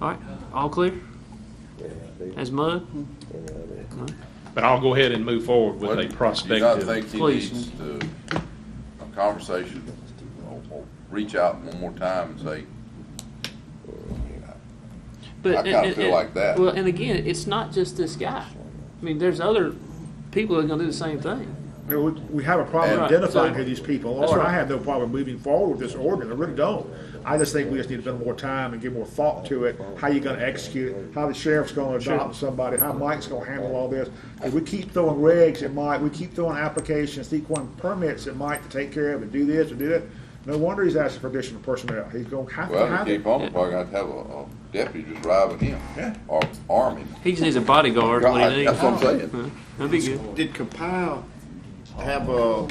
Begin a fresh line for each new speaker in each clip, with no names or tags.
All right, all clear
Yeah,
as mud?
they- yeah, they-
But I'll go ahead and move forward with a
Do you not
prospective.
think he
Please.
needs to, a conversation, or, or reach out one more time and say,
But
I kinda
and-
feel
and-
like that.
Well, and again, it's not just this guy. I mean, there's other people that are going to do the same thing.
You know, we- We have a problem
Right.
identifying
So-
who these people
That's
are, and
right.
I have no problem moving forward with this ordinance, I really don't. I just think we just need a bit more time and give more thought to it, how you gonna execute, it, how the sheriff's gonna adopt somebody, how Mike's gonna handle all this. If we keep throwing regs at Mike, we keep throwing applications, keep throwing permits at Mike to take care of and do this and do that, no wonder he's asking for additional personnel, he's gonna have to
well,
have
to
it.
keep on, we're gonna have to have a, a deputy just ride with him, or arm him.
He just needs a bodyguard. is what
God,
he needs.
That's what I'm saying.
Huh, That'd be good.
Did Compile have a, a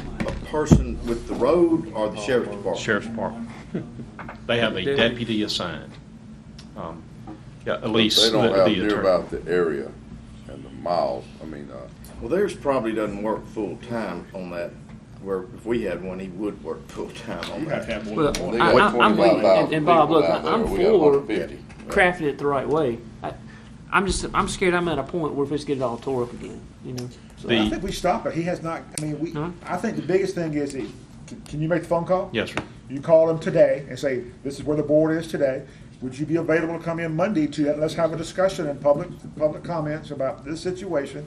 person with the road or the sheriff's department?
Sheriff's Department. They have a deputy assigned. Um, Yeah, Elise,
They
the
don't
the
have near
attorney.
about the area and the miles, I mean, uh,
Well, theirs probably doesn't work full-time on that, where if we had one, he would work full-time on that.
have
Well,
they
I,
got
I, I'm with
twenty-five
you. And,
thousand
and
people
Bob, look, I,
out there,
I'm
we got one
for
fifty.
crafting it the right way. I, I'm just, I'm scared. I'm at a point where if it's get it all tore up again, you know. So,
The-
I think we stop it, he has not, I mean, we,
No.
I think the biggest thing is, he- can- can you make the phone call?
Yes, sir.
You call them today and say, this is where the board is today. Would you be available to come in Monday to, that? let's have a discussion in public, public comments about this situation?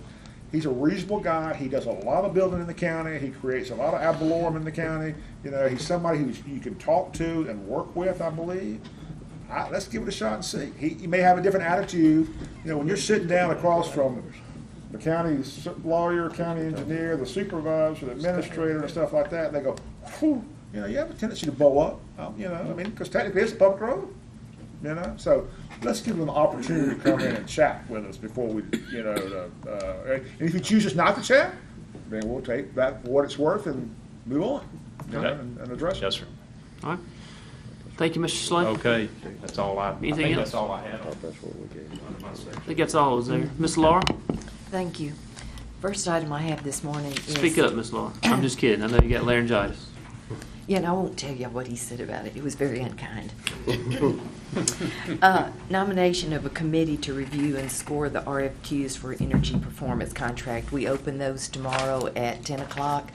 He's a reasonable guy. He does a lot of building in the county. He creates a lot of ad valorem in the county. You know, he's somebody who you can talk to and work with, I believe. I, let's give it a shot and see. He, he may have a different attitude. You know, when you're sitting down across from the county s- lawyer, county engineer, the supervisor, the administrator, and stuff like that, and they go, "Phew," you know, you have a tendency to bow up, um, you know, I mean, because technically it's a public road, you know, so let's give them an opportunity to come in and chat with us before we, you know, uh, uh, and if you choose us not to chat, then we'll take that for what it's worth and move on, you know,
Okay.
and, and address it.
Yes, sir.
all right. Thank you, Mr. Slay.
Okay, that's all I, I
Anything else?
think that's all I had.
I thought that's what we gave.
on my section.
I think that's all is there. Miss Laura,
Thank you. First item I have this morning is.
speak up, Miss Laura. I'm just kidding. I know you got laryngitis.
Yeah, and I won't tell you what he said about it. It was very unkind. Uh, Nomination of a committee to review and score the RFQs for energy performance contract. We open those tomorrow at 10 o'clock.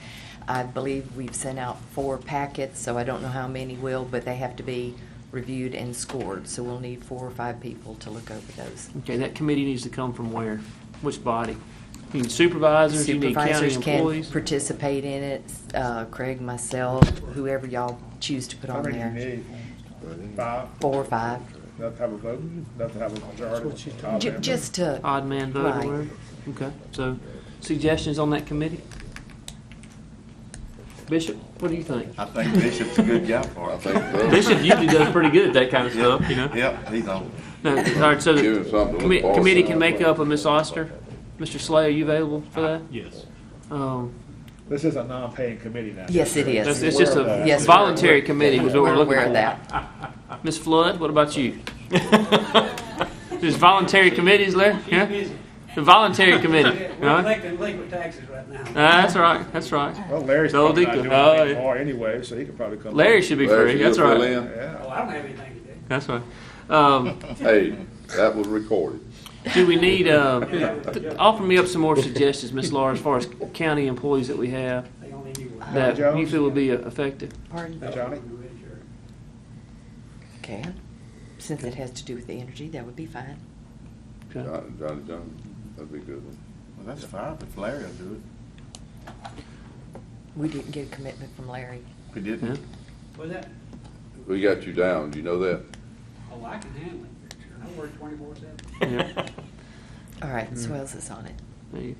I believe we've sent out four packets, so I don't know how many will, but they have to be reviewed and scored. So we'll need four or five people to look over those.
Okay, that committee needs to come from where? Which body? You need supervisors, you need county
Supervisors can
employees.
participate in it, uh, Craig, myself, whoever y'all choose to put
How
on
many do you
there.
need? Five,
Four or five,
enough to have a vote, enough to have a majority. Five
Ju-
members.
just to,
Odd man vote
Right.
or whatever. Okay, so suggestions on that committee? Bishop, what do you think?
I think Bishop's a good guy for
I
it.
think that's
Bishop usually does pretty good at that kind of stuff, you know?
Yep, he's on.
No, all right, so
Give him something
the
to
commi-
look forward
committee
to.
can make up a Miss Oster. Mr. Slay, are you available for that?
Yes.
Um,
This is a non-paying committee now.
yes, it
that's-
is.
It's just a
Yes, we're-
voluntary committee is what we're
We're
looking
aware of
for.
that.
Miss Flood, what about you? There's voluntary committees, Larry? Yeah? The voluntary committee,
We're
huh?
collecting legal taxes right now.
Ah, That's right, that's right.
Well, Larry's
No,
probably
they
not
could-
doing
oh,
anything
yeah.
more anyway, so he could probably come.
Larry should be free, that's right,
Oh, I don't have anything to do.
that's right. Um,
Hey, that was recorded.
do we need, uh, th- offer me up some more suggestions, Miss Laura, as far as county employees that we have
They only do one.
that you
Jones?
feel would be uh, effective?
Pardon?
Johnny?
Okay, since it has to do with the energy, that would be fine.
Okay.
Johnny, Johnny, Johnny, that'd be a good one.
Well, that's fine, but Larry will do it.
We didn't get a commitment from Larry.
We didn't.
Was that,
We got you down, do you know that?
oh, I can handle it. I work twenty-four seven.
Yeah.
All right,
Hmm.
so else is on it.
There you-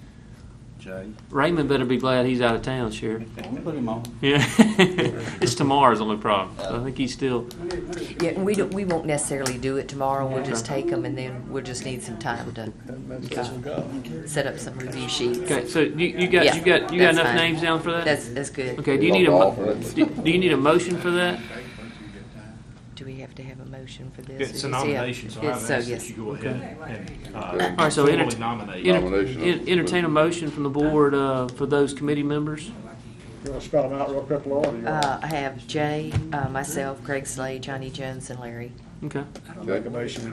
Jay.
Raymond better be glad he's out of town, Sheriff.
Put him on.
Yeah. It's tomorrow's only problem. So I think he's still,
Yeah, and we don't, we won't necessarily do it tomorrow. We'll just take them and then we'll just need some time to uh, set up some review sheets.
okay, so you, you got,
Yeah,
you got, you got
that's
enough
fine.
names down for that?
That's, that's good.
Okay, do you need a,
I'll
mo-
offer it.
do do you need a motion for that?
Do we have to have a motion for
It's
this?
a
Is it-
nomination, so I
it's-
would ask
yes.
that you go ahead and,
Okay.
uh,
All right, so
formally
enter-
nominate.
enter-
Nomination.
en- Entertain a motion from the board, uh, for those committee members?
You wanna spell them out real quick, Laura? or you wanna-
Uh, I have Jay, uh, myself, Craig Slade, Johnny Jones, and Larry.
Okay.
Okay.
Make a motion, we